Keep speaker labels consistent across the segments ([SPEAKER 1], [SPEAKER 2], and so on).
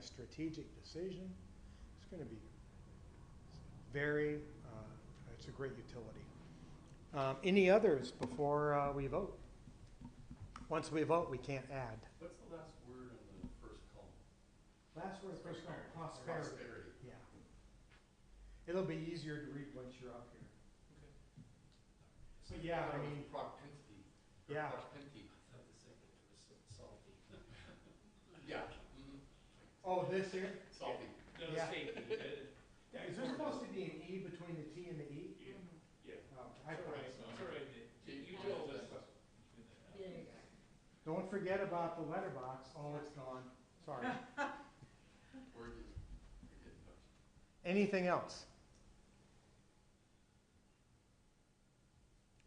[SPEAKER 1] a strategic decision. It's going to be very, uh, it's a great utility. Um, Any others before uh, we vote? Once we vote, we can't add.
[SPEAKER 2] What's the last word in the first column?
[SPEAKER 1] Last word, first one, prosperity. Yeah. It'll be easier to read once you're up here. So, yeah, I mean-
[SPEAKER 2] Propinti. or
[SPEAKER 1] Yeah.
[SPEAKER 2] Propinti.
[SPEAKER 3] I thought the second was salty.
[SPEAKER 2] Yeah. mhm.
[SPEAKER 1] Oh, this here?
[SPEAKER 2] Salty.
[SPEAKER 3] No,
[SPEAKER 1] Yeah.
[SPEAKER 3] safety, uh,
[SPEAKER 1] Is there supposed to be an E between the T and the E?
[SPEAKER 3] yeah, yeah.
[SPEAKER 1] Oh, I
[SPEAKER 3] It's
[SPEAKER 1] thought
[SPEAKER 3] all right,
[SPEAKER 1] so.
[SPEAKER 3] it's all right, you you told us.
[SPEAKER 4] Yeah, you got
[SPEAKER 1] Don't forget about the letterbox. Oh, it's gone. Sorry.
[SPEAKER 2] Word is, you're getting touched.
[SPEAKER 1] Anything else?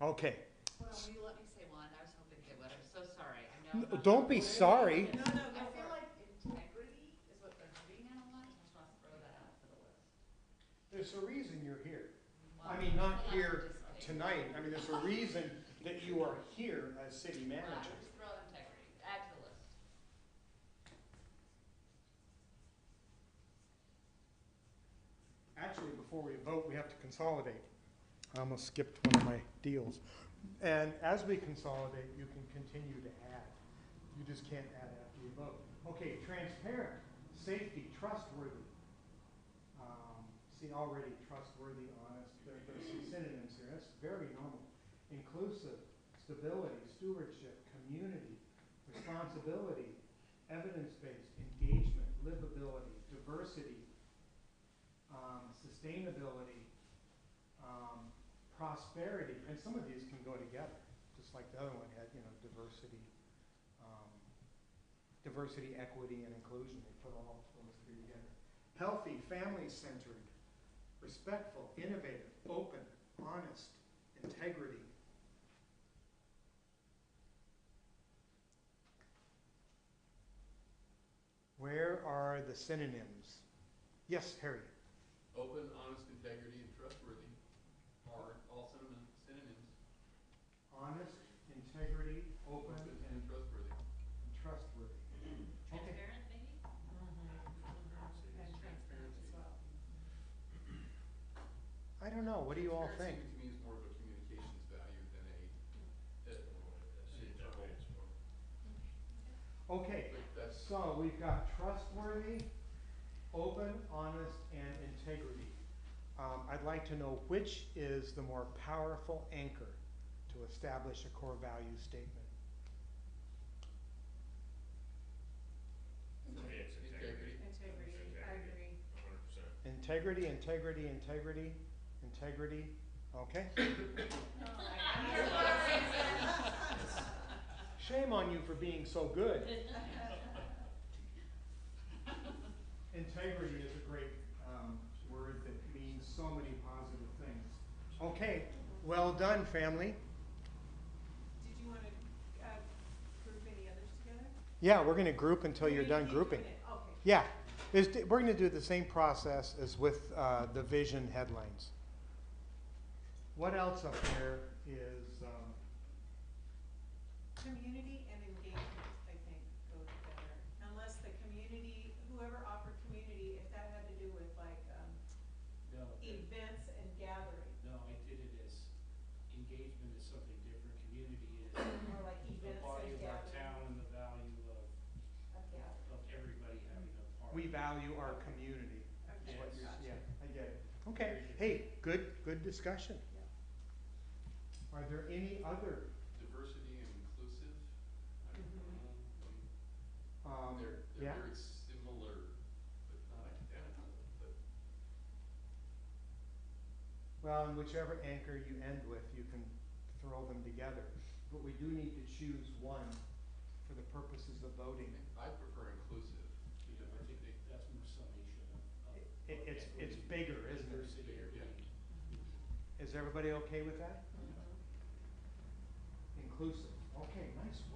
[SPEAKER 1] Okay.
[SPEAKER 4] Well, will you let me say one? I was hoping they would. I'm so sorry. I know.
[SPEAKER 1] N-
[SPEAKER 4] I'm not-
[SPEAKER 1] Don't be sorry.
[SPEAKER 4] No, no, I feel like integrity is what they're hurting on a lot. I just want to throw that out for the list.
[SPEAKER 1] There's a reason you're here. I
[SPEAKER 4] Well,
[SPEAKER 1] mean, not
[SPEAKER 4] I'm
[SPEAKER 1] here
[SPEAKER 4] just kidding.
[SPEAKER 1] tonight. I mean, there's a reason that you are here as city
[SPEAKER 4] Well,
[SPEAKER 1] manager.
[SPEAKER 4] Just throw integrity, add to the list.
[SPEAKER 1] Actually, before we vote, we have to consolidate. I almost skipped one of my deals. And as we consolidate, you can continue to add. You just can't add after you vote. Okay, transparent, safety, trustworthy. Um, See, already trustworthy, honest, there there are some synonyms here, that's very normal. Inclusive, stability, stewardship, community, responsibility, evidence-based, engagement, livability, diversity, um, sustainability, um, prosperity, and some of these can go together, just like the other one had, you know, diversity, um, diversity, equity, and inclusion, they put all those three together. Healthy, family-centered, respectful, innovative, open, honest, integrity. Where are the synonyms? Yes, Harriet.
[SPEAKER 2] Open, honest, integrity, and trustworthy are all synonym- synonyms.
[SPEAKER 1] honest, integrity, open, and
[SPEAKER 2] Open and trustworthy.
[SPEAKER 1] trustworthy. Okay.
[SPEAKER 4] Transparent, maybe?
[SPEAKER 3] Transparency.
[SPEAKER 2] Transparency.
[SPEAKER 1] I don't know, what do you all think?
[SPEAKER 2] Transparency to me is more of a communications value than a, uh,
[SPEAKER 1] Okay,
[SPEAKER 2] but that's,
[SPEAKER 1] so we've got trustworthy, open, honest, and integrity. Um, I'd like to know which is the more powerful anchor to establish a core value statement.
[SPEAKER 3] It's
[SPEAKER 2] integrity.
[SPEAKER 5] Integrity, I agree.
[SPEAKER 3] hundred percent.
[SPEAKER 1] Integrity, integrity, integrity, integrity, okay?
[SPEAKER 5] No,
[SPEAKER 1] Shame on you for being so good. Integrity is a great um, word that means so many positive things. Okay, well done, family.
[SPEAKER 5] Did you wanna, uh, group any others together?
[SPEAKER 1] Yeah, we're going to group until
[SPEAKER 5] Or
[SPEAKER 1] you're
[SPEAKER 5] you
[SPEAKER 1] done
[SPEAKER 5] keep doing
[SPEAKER 1] grouping.
[SPEAKER 5] it? Okay.
[SPEAKER 1] Yeah, it's, we're going to do the same process as with uh, the vision headlines. What else up there is, um,
[SPEAKER 5] Community and engagement, I think, go together, unless the community, whoever offered community, if that had to do with like, um,
[SPEAKER 3] No, it-
[SPEAKER 5] events and gathering,
[SPEAKER 3] no, I did it as, engagement is something different, community is
[SPEAKER 5] or like
[SPEAKER 3] the
[SPEAKER 5] events
[SPEAKER 3] body
[SPEAKER 5] and
[SPEAKER 3] of our
[SPEAKER 5] gathering,
[SPEAKER 3] town and the value of,
[SPEAKER 5] a gathering,
[SPEAKER 3] of everybody having a part.
[SPEAKER 1] we value our community. is
[SPEAKER 5] okay,
[SPEAKER 1] what you're-
[SPEAKER 5] gotcha.
[SPEAKER 1] Yeah, I get it. Okay, hey, good, good discussion.
[SPEAKER 5] Yeah.
[SPEAKER 1] Are there any other,
[SPEAKER 2] Diversity and inclusive. I don't know.
[SPEAKER 1] um,
[SPEAKER 2] Um, They're,
[SPEAKER 1] yeah?
[SPEAKER 2] they're very similar, but not identical, but
[SPEAKER 1] Well, and whichever anchor you end with, you can throw them together, but we do need to choose one for the purposes of
[SPEAKER 2] I
[SPEAKER 1] voting.
[SPEAKER 2] think I prefer inclusive to
[SPEAKER 3] You know, I think
[SPEAKER 2] diversity.
[SPEAKER 3] that- that's more summation of.
[SPEAKER 1] It,
[SPEAKER 3] of-
[SPEAKER 1] it's,
[SPEAKER 3] of
[SPEAKER 1] it's
[SPEAKER 3] equity,
[SPEAKER 1] bigger, isn't it?
[SPEAKER 3] Diversity,
[SPEAKER 2] Bigger, yeah.
[SPEAKER 3] equity.
[SPEAKER 1] Is everybody okay with that?
[SPEAKER 4] Mhm.
[SPEAKER 1] Inclusive, okay, nice